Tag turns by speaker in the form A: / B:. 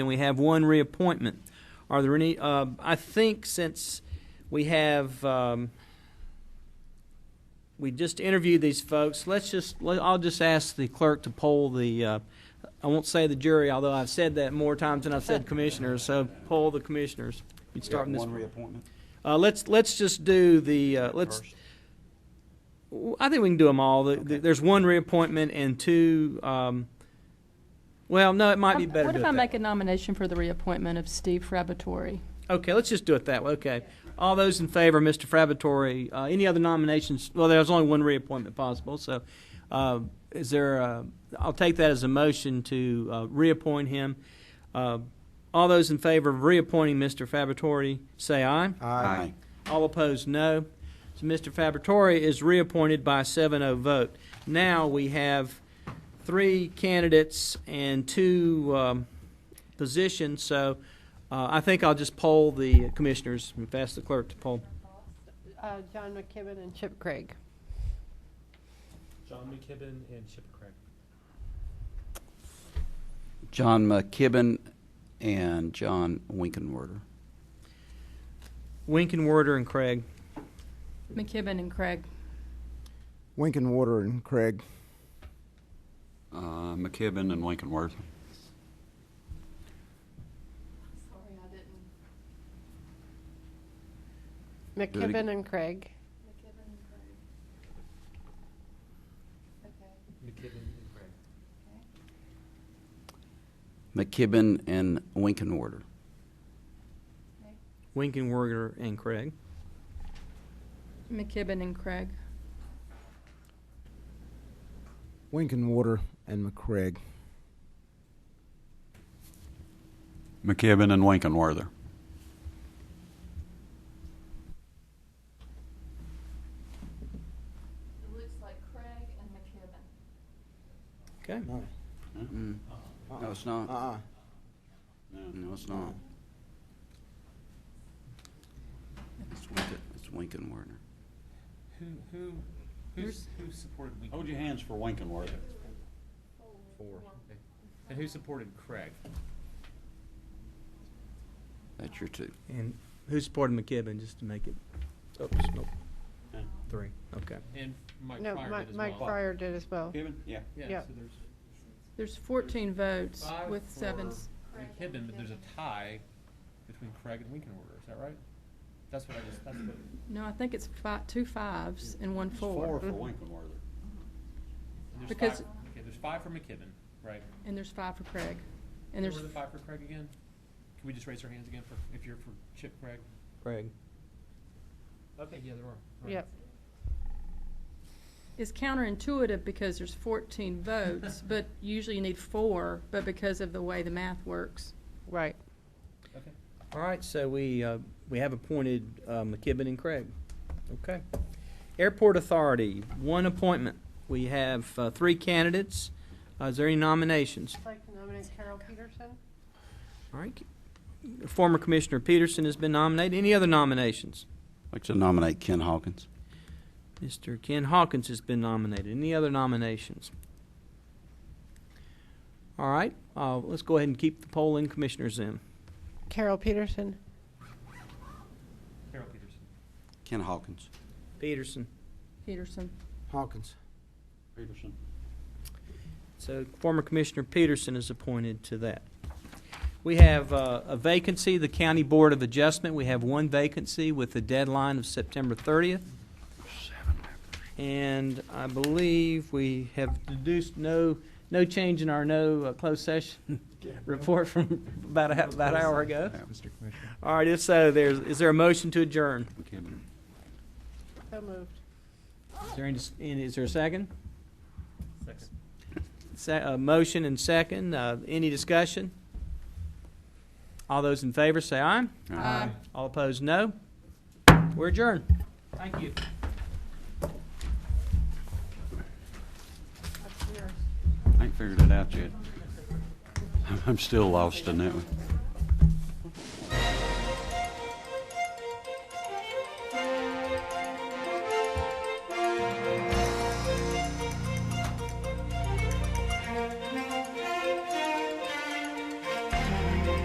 A: And we have one reappointment. Are there any, uh, I think since we have, um, we just interviewed these folks, let's just, let- I'll just ask the clerk to poll the, uh, I won't say the jury, although I've said that more times than I've said commissioners, so poll the commissioners. You'd start in this.
B: One reappointment.
A: Uh, let's, let's just do the, uh, let's,
B: first.
A: Well, I think we can do them all. The, the, there's one reappointment and two. Um, well, no, it might be
C: Um,
A: better.
C: What
A: to
C: if
A: do it
C: I
A: that
C: make a nomination for the reappointment of Steve Frabatory?
A: way. Okay, let's just do it that way. Okay, all those in favor, Mr. Frabatory. Uh, any other nominations? Well, there's only one reappointment possible. So, uh, is there? A, I'll take that as a motion to uh, reappoint him. Uh, all those in favor of reappointing Mr. Frabatory, say aye.
B: Aye.
A: All opposed, no. So Mr. Fabritori is reappointed by 7-0 vote. Now we have three candidates and two um, positions, so uh, I think I'll just poll the commissioners and ask the clerk to poll.
D: Uh, John McKibben and Chip Craig.
E: John McKibben and Chip Craig.
B: John McKibben and John Winkenwerder.
A: Winkenwerder and Craig.
C: McKibben and Craig.
F: Winkenwater and Craig.
B: Uh, McKibben and Winkenwerder.
C: Sorry, I didn't.
B: again.
D: McKibben and Craig.
E: McKibben and Craig.
B: McKibben and Winkenwerder.
A: Winkenwerder and Craig.
C: McKibben and Craig.
F: Winkenwater and McCraig.
B: McKibben and Winkenwerder.
C: It looks like Craig and McKibben.
A: Okay.
B: Hmm. No, it's not.
F: Uh-uh.
B: No, it's not. It's Winken, it's Winkenwerder.
E: Who, who, who's, who supported Winken?
B: your hands for Winkenwerder.
E: And who supported Craig?
B: That's your two.
A: And who supported McKibben, just to make it, oops, nope. Three, okay.
E: And Mike
D: No,
E: Pryor
D: Mi-
E: did as
D: Mike
E: well.
D: Fryer did as well.
B: yeah.
E: Yeah,
D: yeah.
E: so there's
C: There's 14 votes
E: five
C: with
E: for
C: seven. s-
E: McKibben, but there's a tie between Craig and Winkenwerder, is that right? That's what I just, that's what.
C: No, I think it's fi- two fives and one four.
B: Winkenwerder.
E: there's
C: Because-
E: five- Okay, there's five for McKibben, right?
C: And there's five for Craig. And
E: Who
C: there's,
E: were the five for Craig again? Can we just raise our hands again for, if you're for Chip Craig?
A: Craig.
E: Okay, yeah, there are. Right.
D: Yep.
C: it's counterintuitive because there's 14 votes, but usually you need four, but because of the way the math works.
D: Right.
E: Okay.
A: All right, so we, uh, we have appointed uh, McKibben and Craig. Okay. Airport Authority, one appointment. We have uh, three candidates. Uh, Is there any nominations?
D: I'd like to nominate Carol Peterson.
A: All right. Former Commissioner Peterson has been nominated. Any other nominations?
B: I'd like to nominate Ken Hawkins.
A: Mr. Ken Hawkins has been nominated. Any other nominations? All right, uh, let's go ahead and keep the polling commissioners in.
D: Carol Peterson.
E: Carol Peterson.
B: Ken Hawkins.
A: Peterson.
C: Peterson.
F: Hawkins.
B: Peterson.
A: So former Commissioner Peterson is appointed to that. We have uh, a vacancy, the County Board of Adjustment. We have one vacancy with a deadline of September 30th. And I believe we have deduced no, no change in our no uh, closed session report from about, a- about an hour ago.
B: Mr.
A: All right, if so, there's, is there a motion to adjourn?
B: McKibben.
D: So moved.
A: Is there any, is there a second?
E: Second.
A: Se- uh, motion and second. Uh, any discussion? All those in favor say aye.
C: Aye.
A: All opposed, no. We're adjourned. Thank you.
B: I ain't figured it out yet. I'm still lost in that one.